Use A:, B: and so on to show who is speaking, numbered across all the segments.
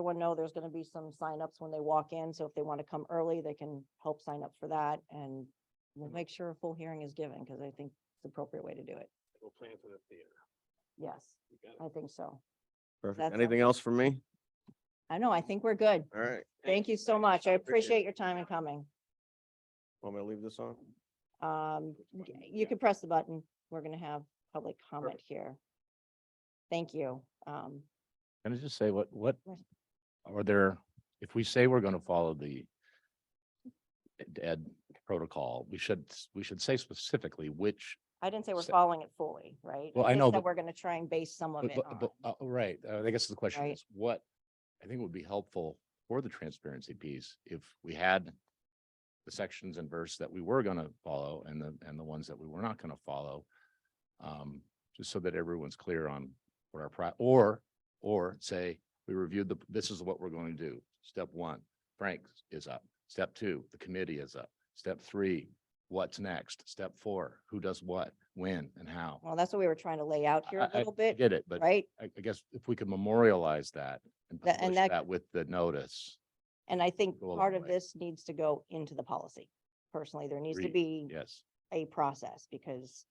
A: everyone know there's gonna be some signups when they walk in, so if they want to come early, they can help sign up for that and we'll make sure a full hearing is given, because I think it's the appropriate way to do it.
B: We'll plan for the theater.
A: Yes,
B: You got it.
A: I think so. That's
C: Perfect.
A: all.
C: Anything else from me?
A: I know, I think we're good.
C: All right.
A: Thank you so much. I appreciate your time and coming.
C: Want me to leave this on?
A: Um,
B: Which
A: y-
B: button?
A: you
B: Yeah.
A: can press the button. We're gonna have public comment here. Thank you. Um,
D: Can I just say what, what
A: Yes.
D: are there, if we say we're gonna follow the dead protocol, we should, s- we should say specifically which,
A: I didn't say we're
D: So-
A: following it fully, right?
D: Well, I
A: just
D: know,
A: that
D: but-
A: We're gonna try and base some of
D: but,
A: it
D: but-
A: on.
D: but, uh, right, uh, I guess the question
A: Right.
D: is what, I think would be helpful for the transparency piece, if we had the sections and verse that we were gonna follow and the, and the ones that we were not gonna follow. Um, just so that everyone's clear on what our, pri- or, or say, we reviewed the, this is what we're going to do. Step one, Frank is up. Step two, the committee is up. Step three, what's next? Step four, who does what, when and how?
A: Well, that's what we were trying to lay out here
D: I-
A: a
D: I-
A: little
D: I
A: bit,
D: Get it, but I,
A: right?
D: I guess if we could memorialize that and
A: Tha- and
D: publish
A: that-
D: that with the notice.
A: And I think
D: go a long
A: part of
D: way.
A: this needs to go into the policy. Personally, there needs to be
D: Agreed. Yes,
A: a process because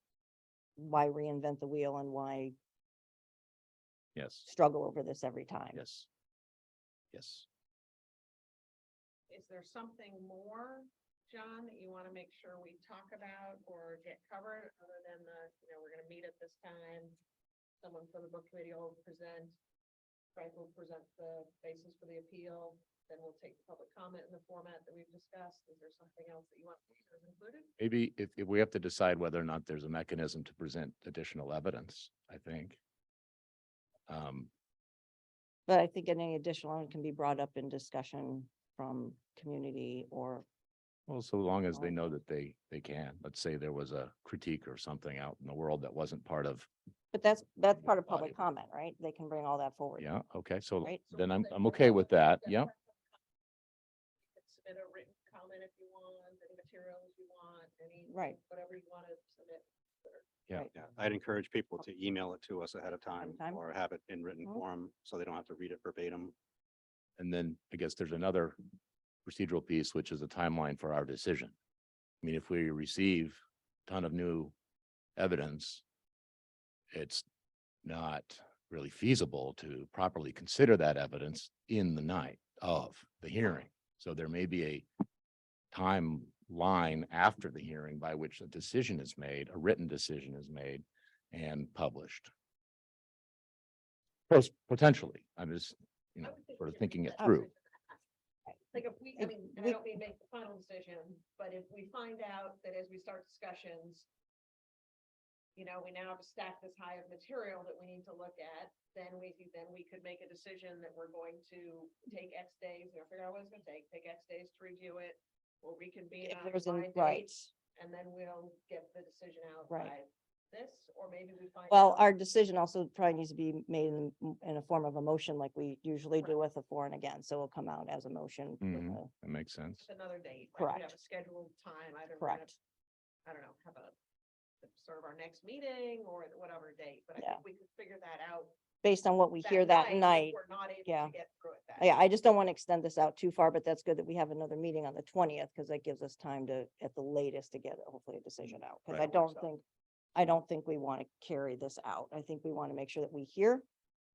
A: why reinvent the wheel and why
D: yes,
A: struggle over this every time?
D: yes. Yes.
E: Is there something more, John, that you want to make sure we talk about or get covered other than the, you know, we're gonna meet at this time? Someone from the book committee will present. Frank will present the basis for the appeal, then we'll take the public comment in the format that we've discussed. Is there something else that you want to make sure is included?
D: Maybe if, if we have to decide whether or not there's a mechanism to present additional evidence, I think. Um,
A: But I think any additional can be brought up in discussion from community or
D: Well, so long as they
A: Well-
D: know that they, they can. Let's say there was a critique or something out in the world that wasn't part of,
A: But that's, that's
D: Yeah,
A: part of
D: body
A: public comment, right? They can bring all that forward.
D: yeah, okay, so
A: Right.
E: So
D: then
E: we'll
D: I'm,
E: say
D: I'm
E: we're
D: okay
E: gonna
D: with that,
E: discuss
D: yeah.
E: You can Submit a written comment if you want, any materials you want, any,
A: Right.
E: whatever you want to submit.
B: Yeah, I'd encourage people to email it to us ahead of time
A: time.
B: or have it in written
A: Mhm.
B: form, so they don't have to read it verbatim.
D: And then I guess there's another procedural piece, which is a timeline for our decision. I mean, if we receive a ton of new evidence, it's not really feasible to properly consider that evidence in the night of the hearing. So there may be a timeline after the hearing by which a decision is made, a written decision is made and published. Pos- Potentially, I'm just, you know,
E: I would think
D: sort of
E: we
D: thinking
E: should
D: it
E: have
D: through.
E: it. Like if we, I
A: If
E: mean, and
A: we-
E: I don't mean make the final decision, but if we find out that as we start discussions, you know, we now have a stack this high of material that we need to look at, then we, could- then we could make a decision that we're going to take X days, or figure out what it's gonna take, take X days to review it. We'll reconvene
A: If
E: on
A: there's an,
E: my
A: right.
E: date, and then we'll get the decision out
A: Right.
E: by this, or maybe we find.
A: Well,
E: out-
A: our decision also probably needs to be made in, in a form of a motion like we usually do with
E: Right.
A: a for and against. So it'll come out as a motion. with
D: Mhm.
A: a-
D: That makes sense.
E: It's another date. right? We
A: Correct.
E: have a scheduled time. I don't. we're gonna-
A: Correct.
E: I don't know, have a, sort of our next meeting or at whatever date, but I
A: Yeah.
E: think we could figure that out.
A: Based on what we hear that
E: if
A: night.
E: We're not able
A: yeah.
E: to get through it that.
A: Yeah, I just don't want to extend this out too far, but that's good that we have another meeting on the twentieth because that gives us time to, at the latest, to get hopefully a decision out. Because
D: Right.
A: I don't
E: So-
A: think, I don't think we want to carry this out. I think we want to make sure that we hear,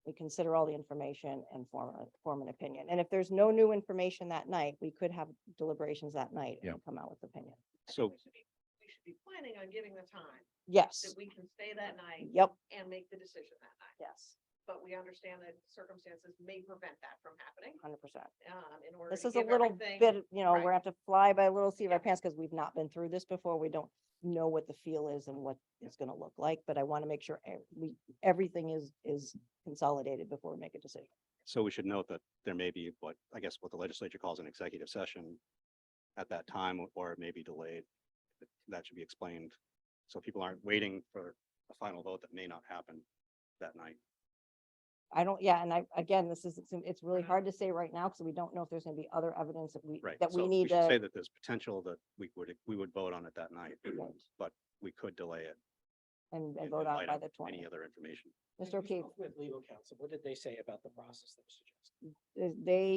A: we consider all the information and form, a- form an opinion. And if there's no new information that night, we could have deliberations that night
D: Yeah.
A: and come out with opinion.
E: I think
B: So
E: We should be we should be planning on giving the time
A: Yes,
E: that we can stay that night
A: yep,
E: and make the decision that night.
A: yes,
E: But we understand that circumstances may prevent that from happening,
A: hundred percent.
E: um, in order.
A: This
E: to
A: is a
E: give
A: little
E: everything-
A: bit, you know, we're
E: right.
A: gonna have to fly by a little seat of our
E: Yeah.
A: pants because we've not been through this before. We don't know what the feel is and what it's gonna look like, but I want to make sure e- we, everything is, is consolidated before we make a decision.
B: So we should note that there may be what, I guess what the legislature calls an executive session at that time, or- or it may be delayed. That should be explained. So people aren't waiting for a final vote that may not happen that night.
A: I don't, yeah, and I, again, this is, it's- it's really
E: Right.
A: hard to say right now because we don't know if there's gonna be other evidence that we,
B: Mm-hmm. Right.
A: that we
B: so
A: need
B: should Say
A: to.
B: that there's potential that we would, we would vote on it that night, but we could delay it,
A: And,
B: in-
A: and
B: in
A: vote on
B: light
A: by
B: of
A: the twentieth.
B: any other information.
A: Mr. O'Keefe,
F: With legal counsel, what did they say about the process that was suggested?
A: is they